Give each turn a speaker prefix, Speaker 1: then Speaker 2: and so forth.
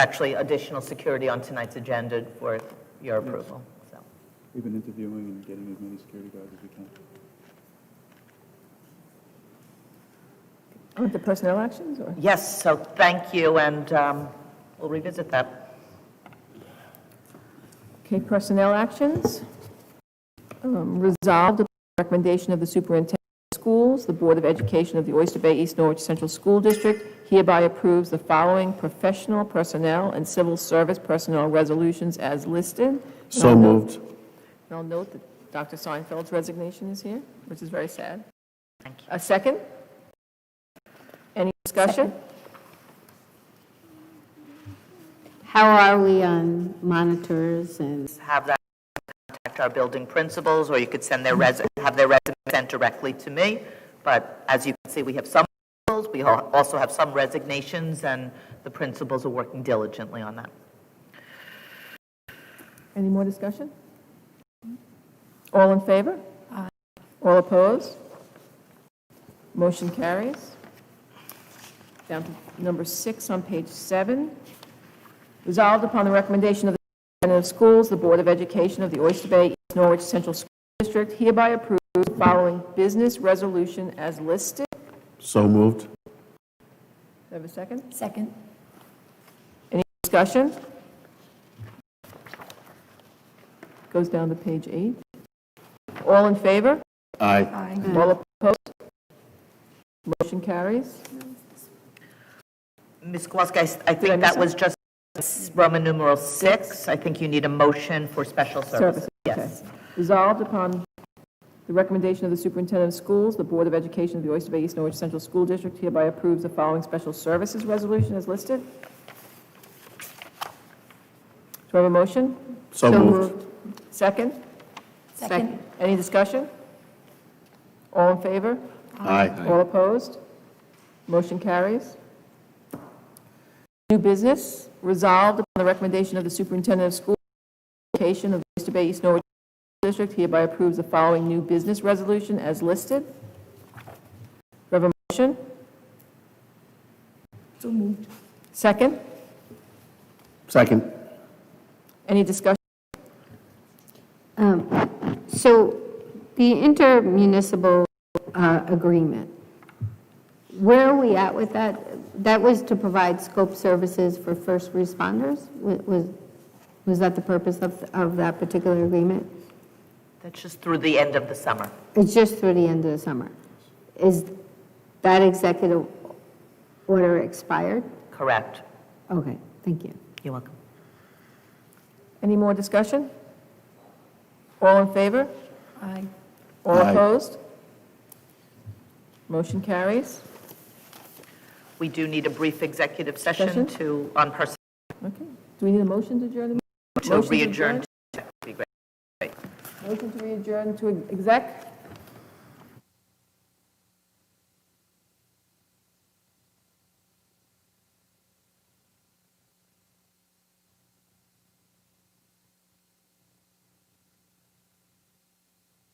Speaker 1: actually additional security on tonight's agenda for your approval, so.
Speaker 2: We've been interviewing and getting as many security guards as we can.
Speaker 3: With the personnel actions, or?
Speaker 1: Yes, so thank you, and um, we'll revisit that.
Speaker 3: Okay, personnel actions. Um, Resolved upon the recommendation of the superintendent of schools, the Board of Education of the Oyster Bay East Norwich Central School District hereby approves the following professional personnel and civil service personnel resolutions as listed.
Speaker 4: So moved.
Speaker 3: And I'll note that Dr. Seinfeld's resignation is here, which is very sad.
Speaker 1: Thank you.
Speaker 3: A second? Any discussion?
Speaker 5: How are we on monitors and,
Speaker 1: Have that contact our building principals, or you could send their
Speaker 3: Mm-hmm.
Speaker 1: resume, have their resume sent directly to me. But as you can see, we have some, principals, we al- also have some resignations, and the principals are working diligently on that.
Speaker 3: Any more discussion? All in favor? All opposed? Motion carries. Down to number six on page seven. Resolved upon the recommendation of the Superintendent of Schools, the Board of Education of the Oyster Bay East Norwich Central School District hereby approves the following business resolution as listed. Do
Speaker 4: So moved.
Speaker 3: I have a second?
Speaker 6: Second.
Speaker 3: Any discussion? Goes down to page eight. All in favor?
Speaker 4: Aye.
Speaker 6: Aye.
Speaker 3: All opposed? Motion carries.
Speaker 1: Ms. Kowalski, I s- I
Speaker 3: Did I
Speaker 1: think
Speaker 3: miss
Speaker 1: that was just Roman numeral six. I think you need a motion for special services.
Speaker 3: Services,
Speaker 1: Yes.
Speaker 3: Resolved upon the recommendation of the superintendent of schools, the Board of Education of the Oyster Bay East Norwich Central School District hereby approves the following special services resolution as listed. Do I have a motion?
Speaker 4: So moved.
Speaker 3: Second?
Speaker 6: Second.
Speaker 3: Any discussion? All in favor?
Speaker 4: Aye.
Speaker 3: All opposed? Motion carries. New business, resolved upon the recommendation of the superintendent of schools, location of the Oyster Bay East Norwich District hereby approves the following new business resolution as listed. Do I have a motion?
Speaker 6: So moved.
Speaker 3: Second?
Speaker 4: Second.
Speaker 3: Any discussion?
Speaker 5: um, so the intermunicipal uh, agreement, where are we at with that? That was to provide scope services for first responders? Wa- Was, was that the purpose of, of that particular agreement?
Speaker 1: That's just through the end of the summer.
Speaker 5: It's just through the end of the summer. Is that executive order expired?
Speaker 1: Correct.
Speaker 5: Okay, thank you.
Speaker 1: You're welcome.
Speaker 3: Any more discussion? All in favor?
Speaker 6: Aye.
Speaker 3: All
Speaker 4: Aye.
Speaker 3: opposed? Motion carries.
Speaker 1: We do need a brief executive session
Speaker 3: Session?
Speaker 1: to, on person,
Speaker 3: Okay. Do we need a motion to adjourn the
Speaker 1: to
Speaker 3: meeting? Motion to
Speaker 1: re-adjourn
Speaker 3: adjourn? Motion to adjourn to exec?